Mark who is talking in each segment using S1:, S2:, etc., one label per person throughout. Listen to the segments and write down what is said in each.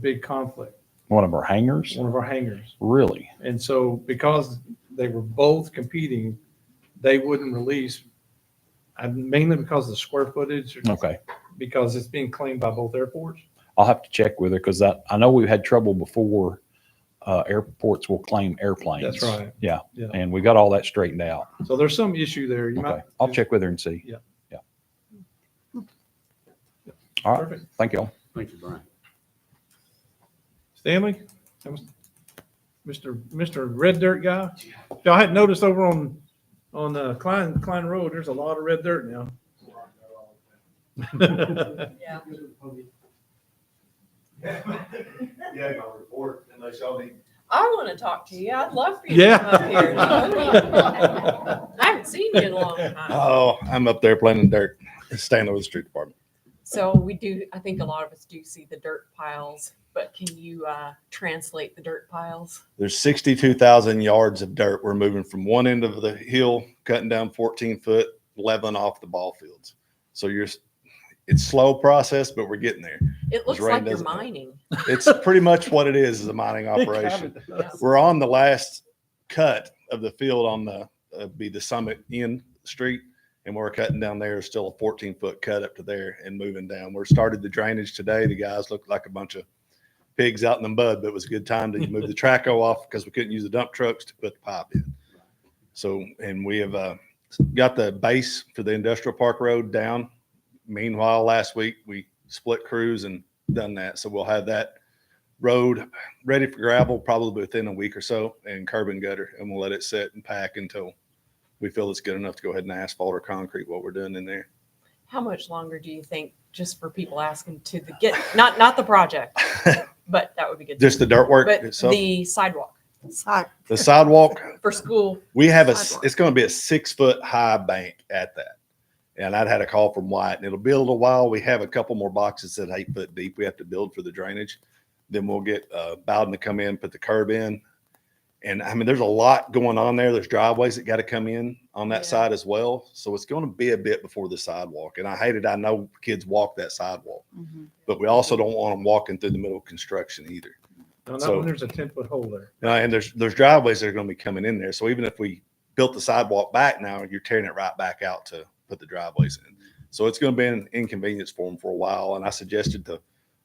S1: big conflict,
S2: One of our hangers?
S1: one of our hangars.
S2: Really?
S1: And so because they were both competing, they wouldn't release, uh, mainly because of the square footage, or
S2: Okay.
S1: because it's being claimed by both airports.
S2: I'll have to check with her because I, I know we've had trouble before. Uh, airports will claim airplanes.
S1: That's right.
S2: Yeah.
S1: Yeah.
S2: And we got all that straightened out.
S1: So there's some issue there. You
S2: Okay.
S1: might.
S2: I'll check with her and see.
S1: Yeah.
S2: Yeah. All right.
S1: Perfect.
S2: Thank y'all.
S3: Thank you, Brian.
S1: Stanley? That was Mr. Mr. Red Dirt guy? Y'all had noticed over on, on uh, Klein, Klein Road, there's a lot of red dirt now.
S4: Yeah.
S5: Yeah, my report, and they shall be.
S4: I want to talk to you. I'd love for you to come up here. I
S1: Yeah.
S4: haven't seen you in a long time.
S6: Oh, I'm up there planting dirt, staying with the street department.
S4: So we do, I think a lot of us do see the dirt piles, but can you uh, translate the dirt piles?
S6: There's 62,000 yards of dirt. We're moving from one end of the hill, cutting down 14 foot, leveling off the ball fields. So you're, s- it's slow process, but we're getting there.
S4: It looks
S6: rain
S4: like you're
S6: doesn't-
S4: mining.
S6: It's pretty much what it is, is a mining operation. We're on the last cut of the field on the, uh, be the summit end street. And we're cutting down there, still a 14 foot cut up to there and moving down. We're started the drainage today. The guys looked like a bunch of pigs out in the mud, but it was a good time to move the traco off because we couldn't use the dump trucks to put the pipe in. So, and we have, uh, got the base for the industrial park road down. Meanwhile, last week we split crews and done that. So we'll have that road ready for gravel probably within a week or so and curb and gutter and we'll let it sit and pack until we feel it's good enough to go ahead and asphalt or concrete what we're doing in there.
S4: How much longer do you think, just for people asking to the get, not, not the project, but that would be good.
S6: Just the dirt work
S4: But
S6: itself. The,
S4: the sidewalk
S6: sidewalk,
S4: for school.
S6: we have a, s-
S4: Sidewalk.
S6: it's going to be a six foot high bank at that. And I'd had a call from White and it'll be a little while. We have a couple more boxes that eight foot deep we have to build for the drainage. Then we'll get uh, Bowden to come in, put the curb in. And I mean, there's a lot going on there. There's driveways that got to come in on that
S4: Yeah.
S6: side as well. So it's going to be a bit before the sidewalk. And I hate it. I know kids walk that sidewalk,
S4: Mm-hmm.
S6: but we also don't want them walking through the middle of construction either.
S1: No, not
S6: So-
S1: when there's a ten foot hole there.
S6: Uh, and there's there's driveways that are going to be coming in there. So even if we built the sidewalk back now, you're tearing it right back out to put the driveways in. So it's going to be an inconvenience for them for a while. And I suggested to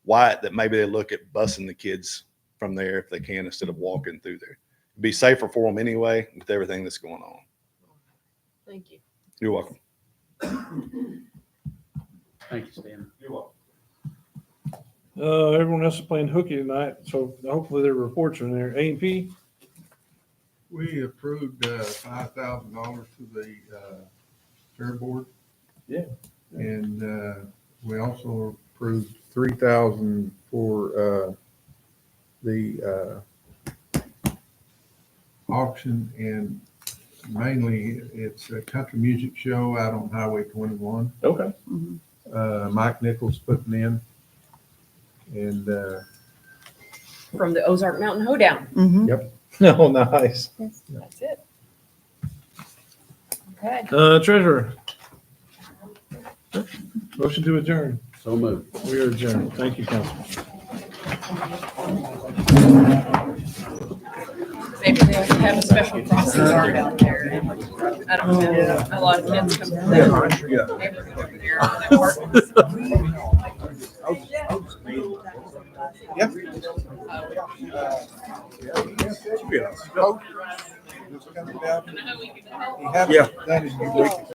S6: Wyatt that maybe they look at busing the kids from there if they can instead of walking through there. It'd be safer for them anyway with everything that's going on.
S4: Thank you.
S6: You're welcome.
S3: Thank you, Stanley.
S5: You're welcome.
S1: Uh, everyone else is playing hooky tonight, so hopefully their reports are in there. A and P,
S7: We approved uh, five thousand dollars to the uh, fair board.
S1: Yeah.
S7: And uh, we also approved three thousand for uh, the uh, auction and mainly it's a country music show out on Highway twenty-one.
S1: okay,
S7: Uh, Mike Nichols putting in. And uh,
S4: From the Ozark Mountain Hoedown.
S1: no, nice.
S4: That's it. Okay.
S1: Uh, treasurer. Motion to adjourn.
S3: So moved.
S1: We are adjourned. Thank you, council.
S4: Maybe they have a special processor out there. I don't know. A lot of kids come from that neighborhood over there. that work.
S7: Coach was coming down. He
S4: I know we can help.
S7: hasn't done his due diligence.